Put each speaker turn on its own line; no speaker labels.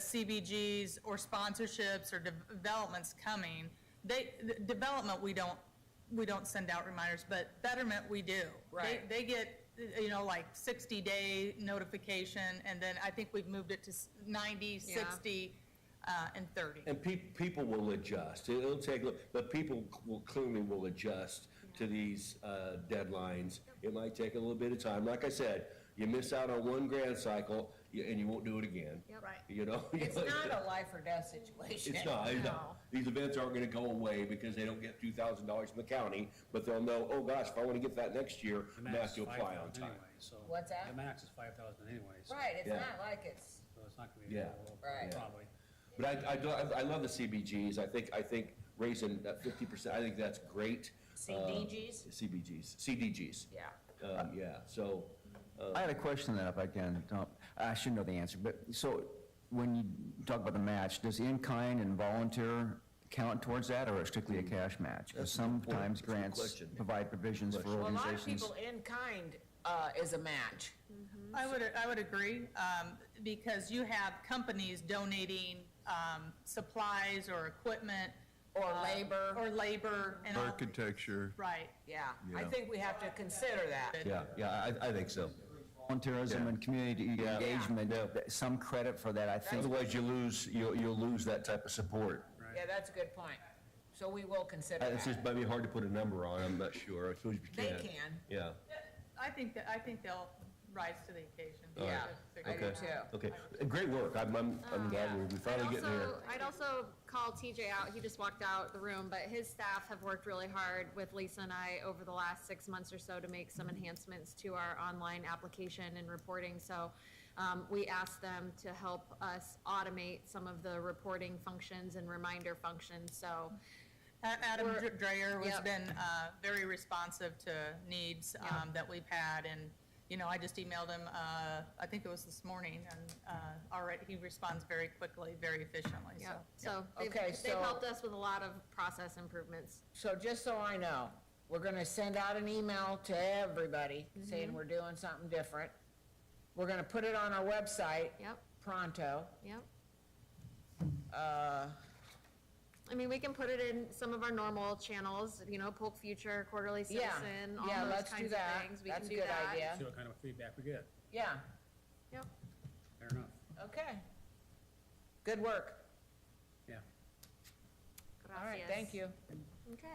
CBGs or sponsorships or developments coming, they, the development, we don't, we don't send out reminders, but betterment, we do. They-
Right.
They get, you know, like sixty-day notification, and then I think we've moved it to s- ninety,
Yeah.
sixty, uh, and thirty.
And pe- people will adjust. It'll take, but people will clearly will adjust to these uh, deadlines. It might take a little bit of time. Like I said, you miss out on one grand cycle you- and you won't do it again.
Right.
You know?
It's not a life or death situation.
It's not, it's not. These events aren't gonna go away because they don't get two thousand dollars from the county, but they'll know, oh gosh, if I wanna get that next year,
The
I have
max
to
is
apply
5,000
on time.
anyway, so.
What's that?
The max is five thousand anyway, so.
Right, it's
Yeah.
not like it's,
So it's not gonna be. a
Yeah.
little-
Right.
Probably.
But I, I, do- I- I love the CBGs. I think, I think raising that fifty percent, I think that's great. Uh,
CDGs?
CBGs, CDGs.
yeah.
Um, yeah, so,
I had a question then, if I can, Tom. I should know the answer, but, so, when you talk about the match, does in-kind and volunteer count towards that, or strictly a cash match? Because sometimes
That's a good
grants
question.
provide provisions for
Well, a lot
organizations.
of people in kind, uh, is a match.
I would, I would agree, um, because you have companies donating, um, supplies or equipment.
Or
uh,
labor.
Or labor and all.
Architecture.
Right.
Yeah, I
Yeah.
think we have to consider that.
yeah, yeah, I, I think so.
Volunteerism
Yeah.
and community engagement, that- some credit for that, I think.
Otherwise you lose, you'll, you'll lose that type of support.
Yeah, that's a good point. So we will consider
Uh, It's just
that.
maybe hard to put a number on. I'm not sure. I suppose you
They
can.
can.
Yeah,
I think that, I think they'll rise to the occasion.
Yeah,
Figure
I
it
do
out.
too. Uh,
okay. Uh, Great work. I'm, I'm, I'm glad we're- we're
I'd
finally getting there.
also, I'd also call TJ out, he just walked out the room, but his staff have worked really hard with Lisa and I over the last six months or so to make some enhancements to our online application and reporting, so, um, we asked them to help us automate some of the reporting functions and reminder functions, so,
A- Adam
We're-
Dr- Dreyer has
Yep.
been uh, very responsive to needs um, that we've had, and, you know, I just emailed him, uh, I think it was this morning, and uh, already, he responds very quickly, very efficiently, so.
yeah, so. they've-
Okay,
They've
so-
helped us with a lot of process improvements.
So just so I know, we're gonna send out an email to everybody saying we're doing something different. We're gonna put it on our website
Yep,
pronto.
yep.
Uh,
I mean, we can put it in some of our normal channels, you know, Polk Future, Quarterly
Yeah.
Citizen, all
Yeah,
those
let's do
kinds of
that.
things. We
That's
can
a
do
good
that.
idea.
See what kind of feedback we get.
yeah,
Yep.
Fair enough.
okay. Good work.
Yeah.
All right,
Gracias.
thank you.
Okay.